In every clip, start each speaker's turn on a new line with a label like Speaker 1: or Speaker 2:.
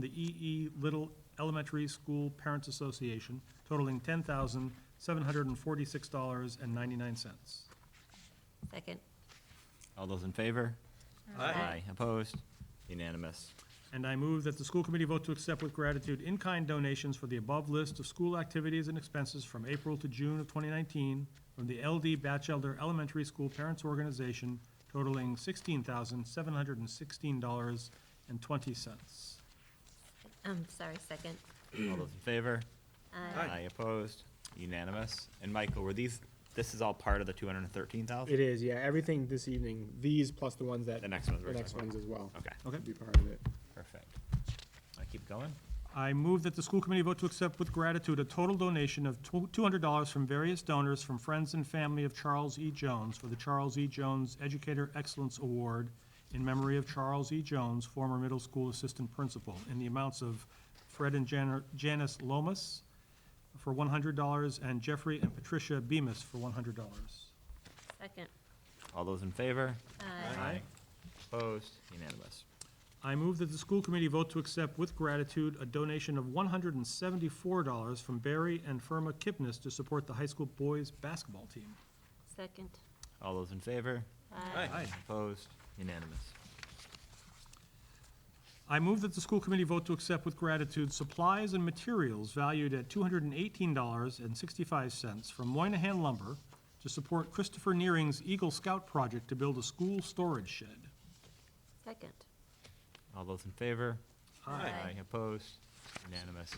Speaker 1: the EE Little Elementary School Parents Association totaling ten thousand, seven hundred and forty-six dollars and ninety-nine cents.
Speaker 2: Second.
Speaker 3: All those in favor? Aye. Opposed? Unanimous.
Speaker 1: And I move that the school committee vote to accept with gratitude in-kind donations for the above list of school activities and expenses from April to June of 2019 from the LD Batchelder Elementary School Parents Organization totaling $16,716.20.
Speaker 2: I'm Um, sorry, second.
Speaker 3: All those in favor?
Speaker 2: Aye.
Speaker 3: Opposed? Unanimous. And Michael, were these, this is all part of the two hundred and thirteen
Speaker 4: It
Speaker 3: thousand?
Speaker 4: is, yeah, everything this evening, these plus the ones that,
Speaker 3: The next ones
Speaker 4: the
Speaker 3: we're
Speaker 4: next
Speaker 3: talking
Speaker 4: ones
Speaker 3: about.
Speaker 4: as well.
Speaker 3: Okay,
Speaker 1: Okay?
Speaker 4: Could Be part of it.
Speaker 3: perfect. I keep going?
Speaker 1: I move that the school committee vote to accept with gratitude a total donation of tw- $200 from various donors from friends and family of Charles E. Jones for the Charles E. Jones Educator Excellence Award in memory of Charles E. Jones, former middle school assistant principal, in the amounts of Fred and Jan- Janice Lomas for $100 and Jeffrey and Patricia Bemis for $100.
Speaker 2: Second.
Speaker 3: All those in favor?
Speaker 2: Aye.
Speaker 3: Opposed? Unanimous.
Speaker 1: I move that the school committee vote to accept with gratitude a donation of $174 from Barry and Firma Kipnis to support the high school boys' basketball team.
Speaker 2: Second.
Speaker 3: All those in favor?
Speaker 2: Aye.
Speaker 1: Aye.
Speaker 3: Opposed? Unanimous.
Speaker 1: I move that the school committee vote to accept with gratitude supplies and materials valued at $218.65 from Moynihan Lumber to support Christopher Nearing's Eagle Scout project to build a school storage shed.
Speaker 2: Second.
Speaker 3: All those in favor?
Speaker 2: Aye.
Speaker 3: Opposed? Unanimous.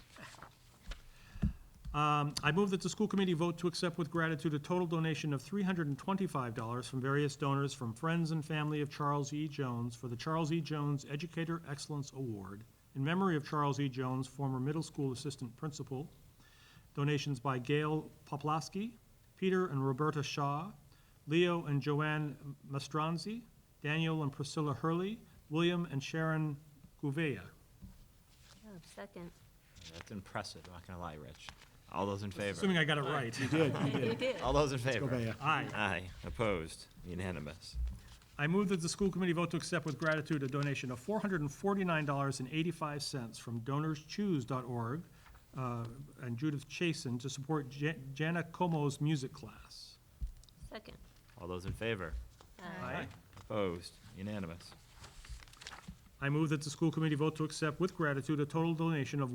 Speaker 1: Um, I move that the school committee vote to accept with gratitude a total donation of $325 from various donors from friends and family of Charles E. Jones for the Charles E. Jones Educator Excellence Award in memory of Charles E. Jones, former middle school assistant principal. Donations by Gail Poplaski, Peter and Roberta Shaw, Leo and Joanne Mastranzi, Daniel and Priscilla Hurley, William and Sharon Gouveia.
Speaker 2: Oh, Second.
Speaker 3: That's impressive, I'm not gonna lie, Rich. All those in favor?
Speaker 1: Assuming I got it right.
Speaker 2: You did.
Speaker 3: All those in favor?
Speaker 4: Gouveia.
Speaker 1: Aye.
Speaker 3: Aye. Opposed? Unanimous.
Speaker 1: I move that the school committee vote to accept with gratitude a donation of $449.85 from DonorsChoose.org uh, and Judith Chason to support Ja- Jana Como's music class.
Speaker 2: Second.
Speaker 3: All those in favor?
Speaker 1: Aye.
Speaker 3: Opposed? Unanimous.
Speaker 1: I move that the school committee vote to accept with gratitude a total donation of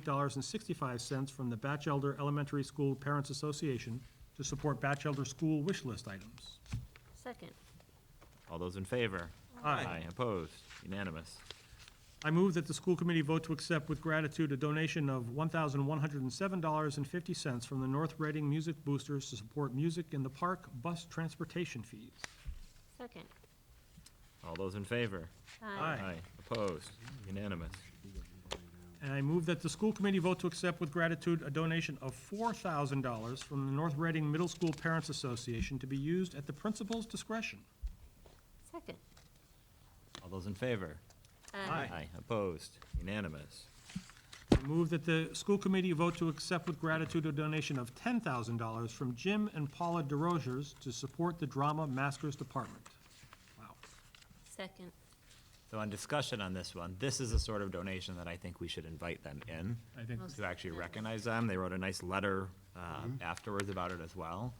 Speaker 1: $1,038.65 from the Batchelder Elementary School Parents Association to support Batchelder school wish list items.
Speaker 2: Second.
Speaker 3: All those in favor? Opposed? Unanimous.
Speaker 1: I move that the school committee vote to accept with gratitude a donation of $1,107.50 from the North Reading Music Boosters to support music in the park bus transportation fees.
Speaker 2: Second.
Speaker 3: All those in favor? Opposed? Unanimous.
Speaker 1: And I move that the school committee vote to accept with gratitude a donation of $4,000 from the North Reading Middle School Parents Association to be used at the principal's discretion.
Speaker 2: Second.
Speaker 3: All those in favor?
Speaker 1: Aye.
Speaker 3: Opposed? Unanimous.
Speaker 1: I Move that the school committee vote to accept with gratitude a donation of $10,000 from Jim and Paula DeRozers to support the Drama Masters Department. Wow.
Speaker 2: Second.
Speaker 3: So on discussion on this one, this is the sort of donation that I think we should invite them in
Speaker 1: I think
Speaker 3: to actually recognize them. They wrote a nice letter
Speaker 1: Mm-hmm.
Speaker 3: um, afterwards about it as well.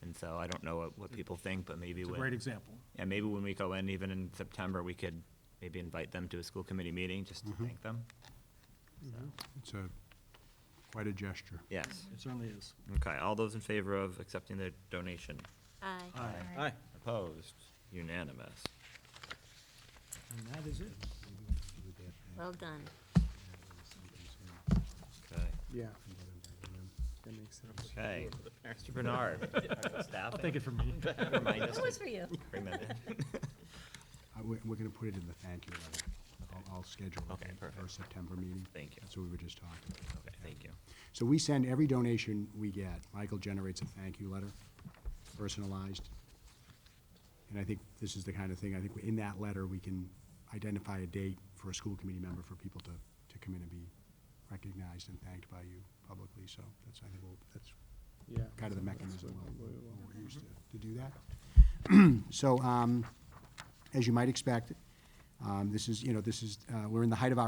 Speaker 3: And so I don't know what- what people think, but maybe
Speaker 1: it's a
Speaker 3: when-
Speaker 1: great example.
Speaker 3: Yeah, maybe when we go in, even in September, we could maybe invite them to a school committee meeting just
Speaker 1: Mm-hmm.
Speaker 3: to thank them.
Speaker 5: It's a, quite a gesture.
Speaker 3: Yes.
Speaker 1: It certainly is.
Speaker 3: Okay, all those in favor of accepting the donation?
Speaker 2: Aye.
Speaker 4: Aye.
Speaker 3: Opposed? Unanimous.
Speaker 1: And that is it.
Speaker 2: Well done.
Speaker 3: Okay.
Speaker 4: Yeah. That makes sense.
Speaker 3: Okay. Mr. Bernard, staff,
Speaker 1: Take it from me.
Speaker 3: remind us
Speaker 2: That was
Speaker 3: to
Speaker 2: for you.
Speaker 3: bring them in.
Speaker 5: Uh, We're, we're gonna put it in the thank you letter. I'll, I'll schedule it
Speaker 3: Okay,
Speaker 5: for our
Speaker 3: perfect.
Speaker 5: September meeting.
Speaker 3: Thank you.
Speaker 5: That's what we were just talking. about.
Speaker 3: Okay, thank you.
Speaker 5: So we send every donation we get, Michael generates a thank you letter, personalized. And I think this is the kind of thing, I think in that letter, we can identify a date for a school committee member for people to, to come in and be recognized and thanked by you publicly, so that's, I think, we'll- that's
Speaker 4: Yeah.
Speaker 5: kind of the mechanism
Speaker 4: what-
Speaker 5: we'll-
Speaker 4: what it will.
Speaker 5: we're used to, to do that. So, um, as you might expect, um, this is, you know, this is, uh, we're in the height of our